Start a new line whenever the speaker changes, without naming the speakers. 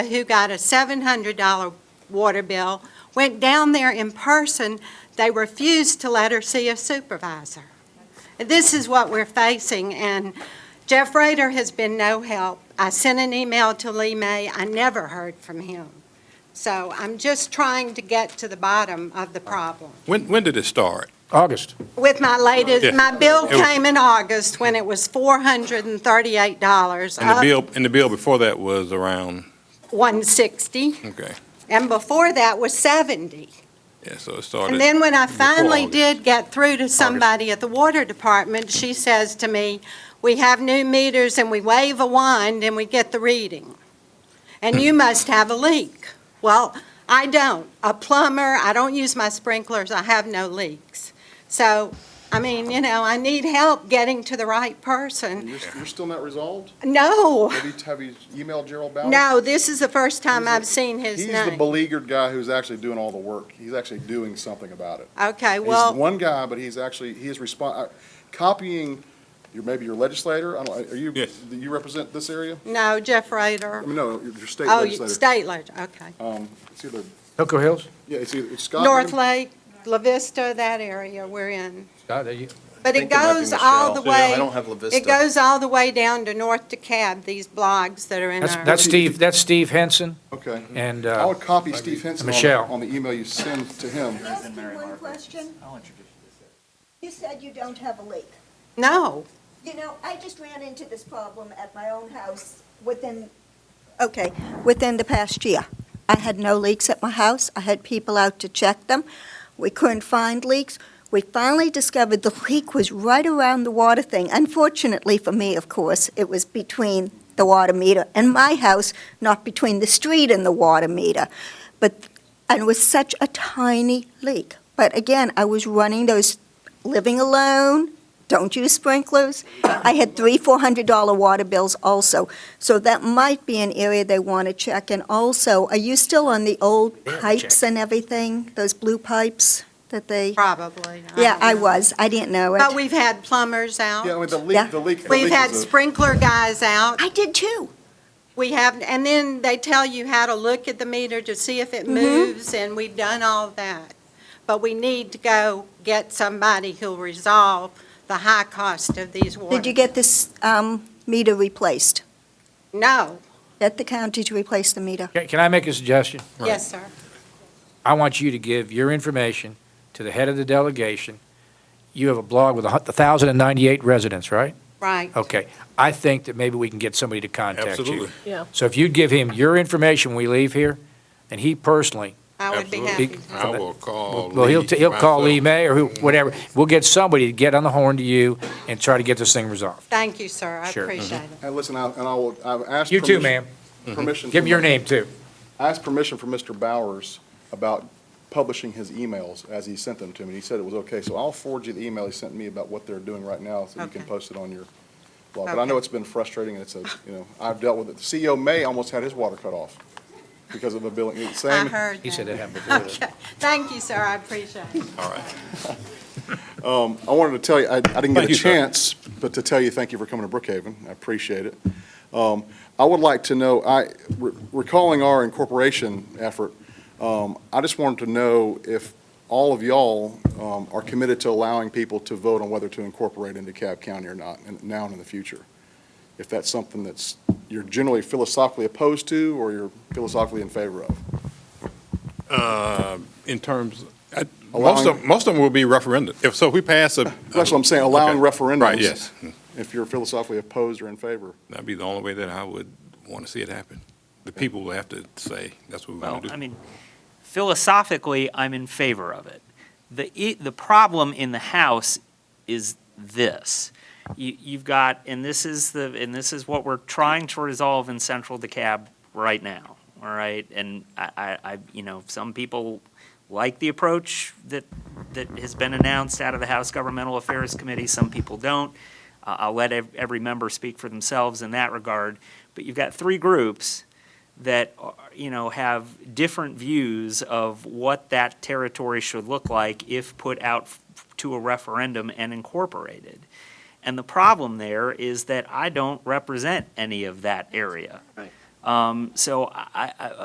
who got a $700 water bill, went down there in person, they refused to let her see a supervisor. And This is what we're facing, and Jeff Rader has been no help. I sent an email to Lee May, I never heard from him. So I'm just trying to get to the bottom of the problem.
When, when did it start?
August.
With my latest,
Yeah.
my bill
It was-
came in August when it was $438.
And the
up
bill, and the bill before that was around,
160,
okay,
and before that was 70.
yeah, so it started.
And then when I
before
finally
August.
did get through to somebody at the water department, she says to me, "We have new meters and we wave a wand and we get the reading. And
Hmm.
you must have a leak." Well, I don't. A plumber, I don't use my sprinklers, I have no leaks. So, I mean, you know, I need help getting to the right
And
person.
You're, you're still not resolved?
No,
Have you, have you emailed Gerald Ballard?
no, this is the first time I've seen his
He's the
name.
beleaguered guy who's actually doing all the work. He's actually doing something about it.
Okay,
He's
well,
one guy, but he's actually, he is respon, uh, copying, your maybe your legislator, I don't, are you,
Yes.
do you represent this area?
no, Jeff Rader.
I mean, no, your your state
Oh, you-
legislator.
state legislator, okay.
Um, it's either,
Hooker Hills?
yeah, it's either it's Scott.
North Lake, La Vista, that area we're in.
God, there you-
But it
think there might be
goes all the
Michelle. Yeah, I
way,
don't have La
it
Vista.
goes all the way down to North DeKalb, these blogs that are in
That's,
our.
that's Steve, that's Steve Henson
Okay.
and,
I
uh,
would copy Steve Henson on, the-
Michelle.
on the email you send to him.
Can I ask you one question?
I'll introduce you to
You said you don't have a leak.
No,
You know, I just ran into this problem at my own house within, okay, within the past year. I had no leaks at my house. I had people out to check them. We couldn't find leaks. We finally discovered the leak was right around the water thing. Unfortunately for me, of course, it was between the water meter and my house, not between the street and the water meter. But, and it was such a tiny leak. But again, I was running those, living alone, don't use sprinklers. I had three, four hundred dollar water bills also. So that might be an area they want to check. And also, are you still on the old pipes and everything? Those blue pipes that they?
probably.
Yeah,
don't
I
know.
was. I didn't know
But
it.
we've had plumbers
Yeah, I mean,
out.
the
Yeah.
leak, the leak. the
We've
leak
had
is a-
sprinkler guys out.
I did too.
We have, and then they tell you how to look at the meter to see if it
Mm-hmm.
moves, and we've done all that. But we need to go get somebody who'll resolve the high cost of these water.
Did you get this um, meter replaced?
No,
At the county to replace the meter?
can can I make a suggestion?
yes, sir.
I want you to give your information to the head of the delegation. You have a blog with a thousand and ninety-eight residents, right?
Right.
Okay, I think that maybe we can get somebody to contact you.
Absolutely.
Yeah.
So if you give him your information when we leave here, and he personally,
I would be happy
Absolutely.
to.
I will call.
well, he'll,
Lee
he'll call Lee
myself.
May or who, whatever, we'll get somebody to get on the horn to you and try to get this thing resolved.
Thank you, sir. I
Sure. Mm-hmm.
appreciate it.
And listen, I, and I will, I've asked.
You too,
permission-
ma'am.
Permission.
Give him
from
your
my-
name, too.
I asked permission from Mr. Bowers about publishing his emails as he sent them to me. He said it was okay, so I'll forward you the email he sent me about what they're doing right now, so you can
Okay.
post it on your blog. But I
Okay.
know it's been frustrating, and it's a, you know, I've dealt with it. The CEO May almost had his water cut off because of a billing, it's the
I
same.
heard that.
He said that happened before.
Okay. Thank you, sir. I appreciate it.
All right.
I wanted to tell you, I, I didn't get
Thank
a
you, sir.
chance, but to tell you, thank you for coming to Brookhaven. I appreciate it. Um, I would like to know, I, re- recalling our incorporation effort, um, I just wanted to know if all of y'all, um, are committed to allowing people to vote on whether to incorporate into DeKalb County or not, and now and in the future. If that's something that's, you're generally philosophically opposed to, or you're philosophically in favor of.
Uh, In terms, I- most of,
Allowing-
most of them will be referendum. If, so if we pass a.
That's what I'm saying, allowing
Okay.
referendums.
Right, yes.
If you're philosophically opposed or in favor.
That'd be the only way that I would want to see it happen. The people will have to say, that's what we
Well,
want to do.
I mean, philosophically, I'm in favor of it. The, i- the problem in the House is this. You, you've got, and this is the, and this is what we're trying to resolve in central DeKalb right now, all right? And I, I, I, you know, some people like the approach that, that has been announced out of the House Governmental Affairs Committee, some people don't. Uh, I'll let ev- every member speak for themselves in that regard, but you've got three groups that, are- you know, have different views of what that territory should look like if put out f- to a referendum and incorporated. And the problem there is that I don't represent any of that area. Um, so I, I,